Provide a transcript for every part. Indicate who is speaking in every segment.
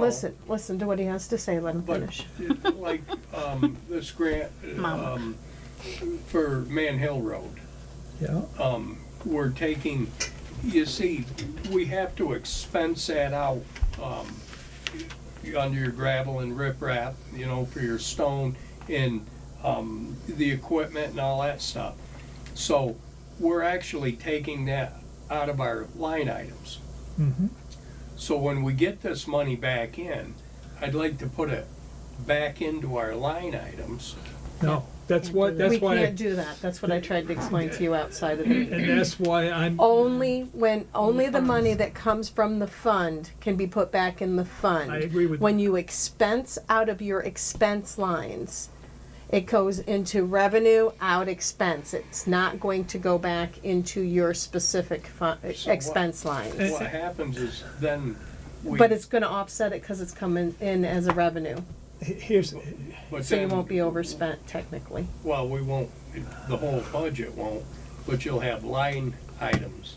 Speaker 1: listen, listen to what he has to say, let him
Speaker 2: But,
Speaker 1: finish.
Speaker 2: it- like, um, this grant,
Speaker 1: Mama.
Speaker 2: um, for Man Hill Road,
Speaker 3: Yeah,
Speaker 2: um, we're taking, you see, we have to expense that out, um, under your gravel and riprap, you know, for your stone and, um, the equipment and all that stuff. So we're actually taking that out of our line items.
Speaker 3: mm-hmm,
Speaker 2: So when we get this money back in, I'd like to put it back into our line items.
Speaker 3: no, that's why, that's
Speaker 1: We
Speaker 3: why,
Speaker 1: can't
Speaker 3: and
Speaker 1: do that, that's what I tried to explain to you outside of the.
Speaker 3: that's why I'm,
Speaker 1: Oh. Only when, only the money that comes from the fund can be put back in the fund.
Speaker 3: I agree with-
Speaker 1: When you expense out of your expense lines, it goes into revenue out expense. It's not going to go back into your specific fu-
Speaker 2: So what-
Speaker 1: expense lines.
Speaker 2: What happens is then we.
Speaker 1: But it's gonna offset it because it's coming in as a revenue,
Speaker 3: here's,
Speaker 2: but
Speaker 1: so you
Speaker 2: then-
Speaker 1: won't be overspent technically.
Speaker 2: Well, we won't, the whole budget won't, but you'll have line items.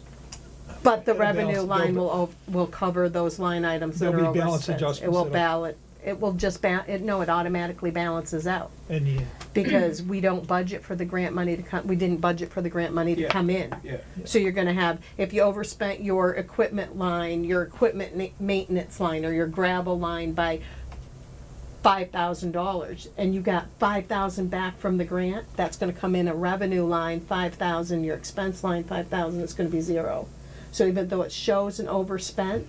Speaker 1: But the
Speaker 3: It'll balance-
Speaker 1: revenue line
Speaker 3: they'll-
Speaker 1: will, ov- will cover those line items that
Speaker 3: There'll
Speaker 1: are
Speaker 3: be balance
Speaker 1: overspent. It
Speaker 3: adjustments
Speaker 1: will
Speaker 3: that'll-
Speaker 1: ballot, it will just ba, it, no, it automatically balances out.
Speaker 3: and yeah,
Speaker 1: Because we don't budget for the grant money to come, we didn't budget for the grant money to
Speaker 2: Yeah.
Speaker 1: come in.
Speaker 2: Yeah,
Speaker 1: So you're gonna have, if you overspent your equipment line, your equipment ma- maintenance line, or your gravel line by five thousand dollars, and you got five thousand back from the grant, that's gonna come in a revenue line, five thousand, your expense line, five thousand, it's gonna be zero. So even though it shows an overspent,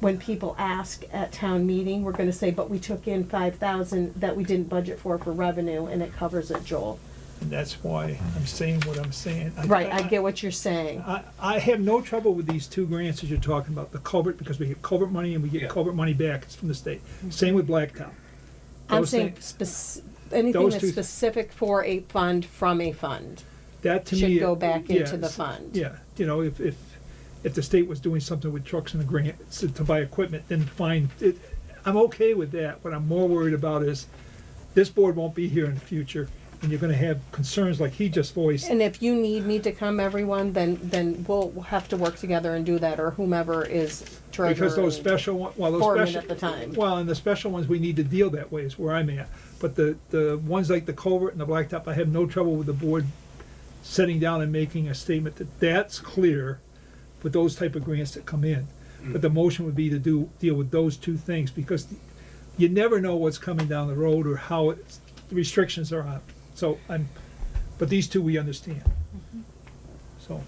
Speaker 1: when people ask at town meeting, we're gonna say, but we took in five thousand that we didn't budget for for revenue, and it covers it, Joel.
Speaker 3: and that's why I'm saying what I'm saying.
Speaker 1: Right, I get what you're saying.
Speaker 3: I, I have no trouble with these two grants that you're talking about, the culvert, because we get culvert money and we
Speaker 2: Yeah.
Speaker 3: get culvert money back, it's from the state. Same with Blacktop.
Speaker 1: Mm-hmm. I'm
Speaker 3: Those
Speaker 1: saying
Speaker 3: things-
Speaker 1: spec- anything
Speaker 3: those
Speaker 1: that's
Speaker 3: two-
Speaker 1: specific for a fund from a fund.
Speaker 3: That to
Speaker 1: Should
Speaker 3: me.
Speaker 1: go back
Speaker 3: yeah,
Speaker 1: into the
Speaker 3: s-
Speaker 1: fund.
Speaker 3: Yeah, you know, if, if, if the state was doing something with trucks and a grant s- to buy equipment, then fine, it, I'm okay with that. What I'm more worried about is this board won't be here in the future and you're gonna have concerns like he just voiced.
Speaker 1: And if you need me to come, everyone, then, then we'll have to work together and do that, or whomever is treasurer.
Speaker 3: Because those
Speaker 1: and-
Speaker 3: special, one- well, those special.
Speaker 1: Foreman at the time.
Speaker 3: Well, and the special ones, we need to deal that way is where I'm at. But the, the ones like the culvert and the blacktop, I have no trouble with the board sitting down and making a statement that that's clear with those type of grants that come in. But the motion would be to do, deal with those two things because you never know what's coming down the road or how it's, the restrictions are on. So I'm, but these two we understand.
Speaker 1: Mm-hmm.
Speaker 3: So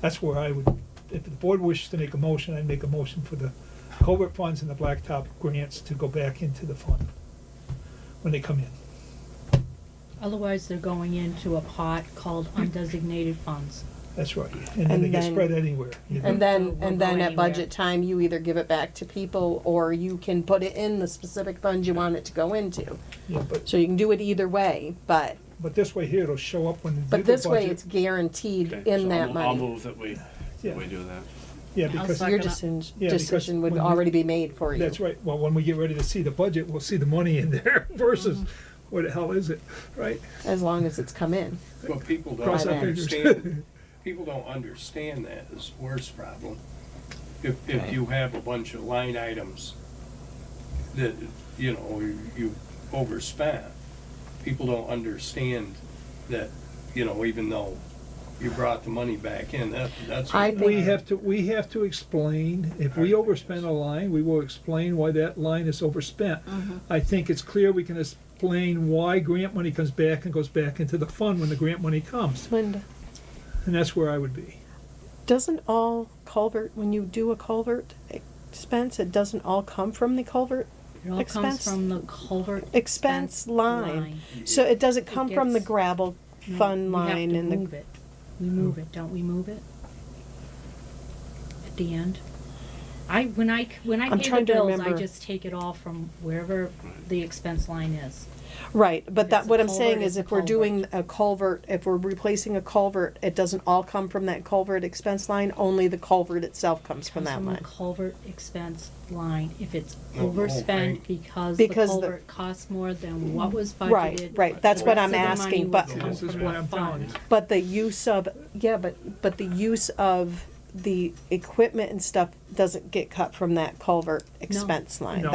Speaker 3: that's where I would, if the board wishes to make a motion, I'd make a motion for the covert funds and the blacktop grants to go back into the fund when they come in.
Speaker 4: Otherwise, they're going into a pot called undesignated funds.
Speaker 3: That's right. And then they
Speaker 1: And
Speaker 3: get
Speaker 1: then-
Speaker 3: spread anywhere. you know.
Speaker 1: And then, and then at
Speaker 4: Won't go anywhere.
Speaker 1: budget time, you either give it back to people, or you can put it in the specific fund you want it to go into.
Speaker 3: Yeah, but,
Speaker 1: So you can do it either way, but,
Speaker 3: but this way here, it'll show up when. they do
Speaker 1: but
Speaker 3: the
Speaker 1: this way,
Speaker 3: budget.
Speaker 1: it's guaranteed
Speaker 5: Okay, so
Speaker 1: in that
Speaker 5: I'll- I'll
Speaker 1: money.
Speaker 5: move that we,
Speaker 3: Yeah.
Speaker 5: we do that.
Speaker 3: Yeah,
Speaker 4: I'll
Speaker 3: because,
Speaker 4: second.
Speaker 1: Your
Speaker 4: Not-
Speaker 1: decision,
Speaker 3: Yeah, because
Speaker 1: decision would
Speaker 3: when you-
Speaker 1: already be made for you.
Speaker 3: that's right. Well, when we get ready to see the budget, we'll see the money in there versus
Speaker 1: Mm-hmm.
Speaker 3: what the hell is it, right?
Speaker 1: As long as it's come in.
Speaker 2: but people don't
Speaker 3: Cross
Speaker 1: our
Speaker 3: fingers.
Speaker 2: understand, people don't understand that is the worst problem. If, if you have a bunch of line items that, you know, you- you overspent, people don't understand that, you know, even though you brought the money back in, that, that's. what
Speaker 1: I
Speaker 2: that-
Speaker 1: think-
Speaker 3: We have to, we have to explain, if we overspend a line, we will explain why that line is overspent. I think it's clear we can explain why grant money comes back and goes back into the fund when the grant money comes,
Speaker 1: Linda.
Speaker 3: and that's where I would be.
Speaker 1: Doesn't all culvert, when you do a culvert expense, it doesn't all come from the culvert
Speaker 4: It all
Speaker 1: Expense-
Speaker 4: comes from the culvert.
Speaker 1: expense line? So it doesn't come from the
Speaker 4: gets-
Speaker 1: gravel
Speaker 4: No,
Speaker 1: fund
Speaker 4: we have
Speaker 1: line
Speaker 4: to
Speaker 1: and the,
Speaker 4: move it. We move it, don't we move it? At the end? I, when I, when I
Speaker 1: I'm
Speaker 4: pay the
Speaker 1: trying to
Speaker 4: bills, I
Speaker 1: remember.
Speaker 4: just take it all from wherever the expense line is.
Speaker 1: right, but that,
Speaker 4: It's a
Speaker 1: what I'm
Speaker 4: culvert,
Speaker 1: saying is
Speaker 4: it's a
Speaker 1: if we're doing a culvert, if we're replacing a culvert, it doesn't all come from that culvert expense line, only the culvert itself comes from
Speaker 4: Comes
Speaker 1: that
Speaker 4: the
Speaker 1: line.
Speaker 4: Culvert expense line, if it's
Speaker 3: Oh,
Speaker 2: The whole
Speaker 4: overspent
Speaker 2: thing.
Speaker 4: because the
Speaker 1: Because the-
Speaker 4: culvert costs more than what was budgeted.
Speaker 1: Right, right, that's what
Speaker 4: the
Speaker 1: I'm
Speaker 4: rest of the
Speaker 1: asking,
Speaker 4: money
Speaker 1: but,
Speaker 4: would
Speaker 3: See,
Speaker 4: come
Speaker 3: this is
Speaker 4: from
Speaker 3: what
Speaker 4: the
Speaker 3: I'm telling you.
Speaker 4: fund.
Speaker 1: but the use of, yeah, but, but the use of the equipment and stuff doesn't get cut from that culvert expense line.
Speaker 3: No.